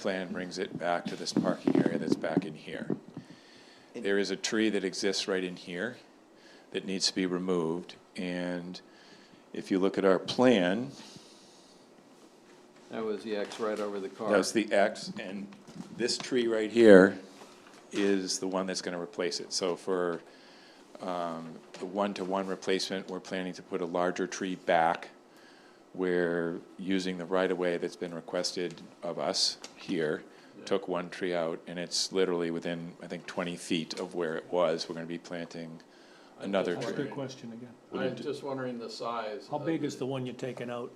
plan brings it back to this parking area that's back in here. There is a tree that exists right in here that needs to be removed, and if you look at our plan, That was the X right over the car. that's the X, and this tree right here is the one that's gonna replace it. So for, um, the one-to-one replacement, we're planning to put a larger tree back. We're using the right-of-way that's been requested of us here, took one tree out, and it's literally within, I think, twenty feet of where it was. We're gonna be planting another That's That's a tree. good question again. I'm just wondering the size. How of big is the one you're taking out?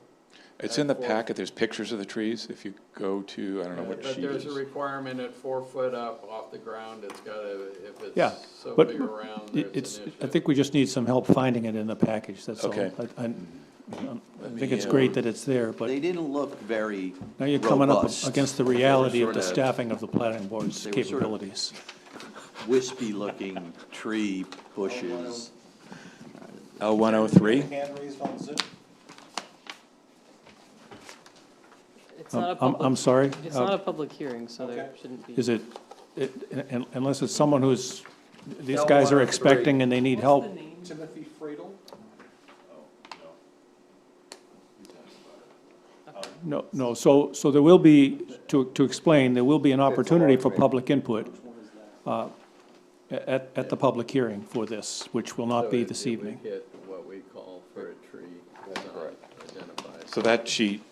It's in the packet, there's pictures of the trees, if you go to, I don't know Yeah, what But sheet it there's a is. requirement at four foot up off the ground, it's gotta, if Yeah, it's so but big around, there's It's, an I issue. think we just need some help finding it in the package, that's all. Okay. I- I I Let think me, it's uh, great that it's there, They but didn't look very now you're coming up robust, against the reality of They the were sorta- staffing of the planning board's they were sorta- capabilities. wispy-looking tree bushes. L one oh three? Hand raised on Zoom. It's not I'm, a I'm- I'm public, sorry? it's uh, not a public hearing, so there Okay. shouldn't be. Is it, it- un- unless it's someone who's, these L guys are 103. expecting and they need help, Timothy Friedel. No, no, so, so there will be, to, to explain, there will be an opportunity for public input uh, at, at the public hearing for this, which will So not be if- this if we evening. Get what we call for a tree not identified. So that sheet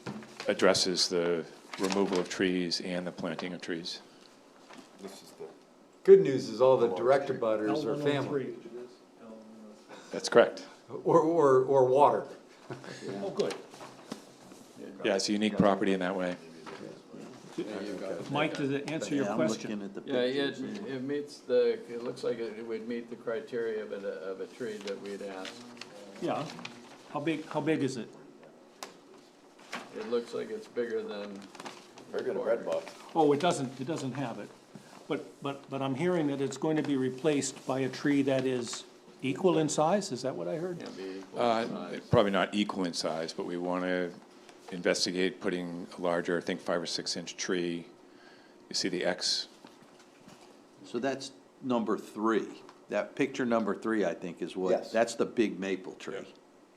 addresses the removal of trees and the planting of trees. Good news is all the direct abutters oh are family, That's correct. or, or, or water. Oh, good. Yeah, it's a unique property in that way. Mike, does it answer your Yeah, I'm looking question? at the Yeah, it, pictures. yeah. it meets the, it looks like it would meet the criteria of a, of a tree that we'd asked. Yeah. How big, how big is it? It looks like it's bigger than. Bigger than red box. Oh, it doesn't, it doesn't have it. But, but, but I'm hearing that it's going to be replaced by a tree that is equal in size, is that what I heard? Can't be equal Uh, in size. Probably not equal in size, but we want to investigate putting a larger, I think, five or six inch tree. You see the X? So that's number three. That picture number three, I think, is what, Yes. that's the big maple tree.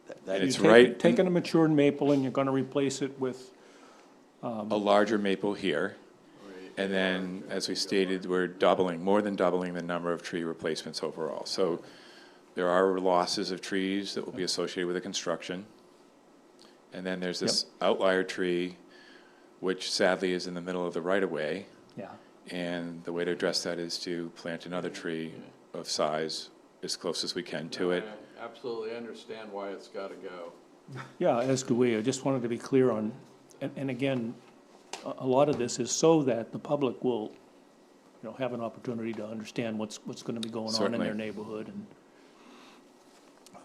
That- that- It's You're taking- right- Taking a matured maple and you're gonna replace it with, A larger maple here. And then, as we stated, we're doubling, more than doubling the number of tree replacements overall. So there are losses of trees that will be associated with the construction. And then there's this outlier tree, which sadly is in the middle of the right-of-way. yeah. And the way to address that is to plant another tree of size as close as we can to it. I Absolutely understand why it's gotta go. Yeah, as do we. I just wanted to be clear on, and, and again, a, a lot of this is so that the public will, you know, have an opportunity to understand what's, what's gonna be going on in Certainly. their neighborhood and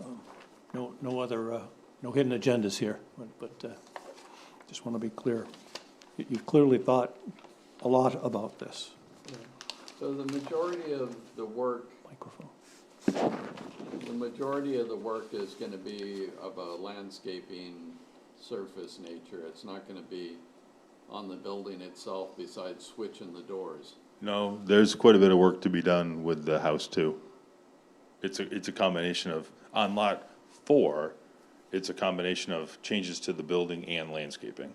um, no, no other, uh, no hidden agendas here, but- but, uh, just wanna be clear. You- You've clearly thought a lot about this So the majority of the work, microphone. the majority of the work is gonna be of a landscaping surface nature. It's not gonna be on the building itself besides switching the doors. No, there's quite a bit of work to be done with the house too. It's a, it's a combination of, on lot four, it's a combination of changes to the building and landscaping.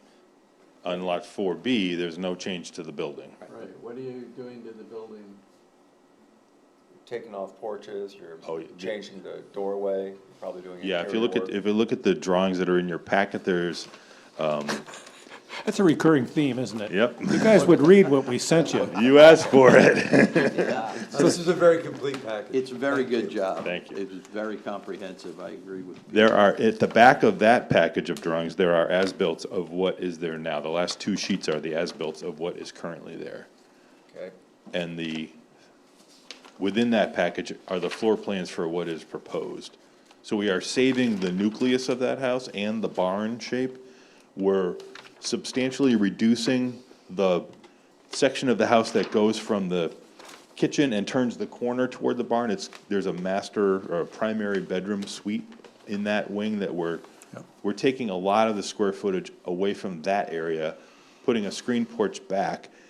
On lot four B, there's no change to the building. Right, what are you doing to the building? Taking off porches, you're Oh, yeah. changing the doorway, probably doing. Yeah, if you interior look at, work. if you look at the drawings that are in your packet, there's, That's a recurring theme, isn't it? yep, You guys would read what we sent you. you asked for it. This is a very complete package. It's a very good job. Thank you. It was very comprehensive, I agree with you. There are, at the back of that package of drawings, there are as-built of what is there now. The last two sheets are the as-built of what is currently there. Okay. And the, within that package are the floor plans for what is proposed. So we are saving the nucleus of that house and the barn shape. We're substantially reducing the section of the house that goes from the kitchen and turns the corner toward the barn. It's, there's a master or a primary bedroom suite in that wing that we're, we're taking a lot of the square footage away from that area, putting a screen porch back,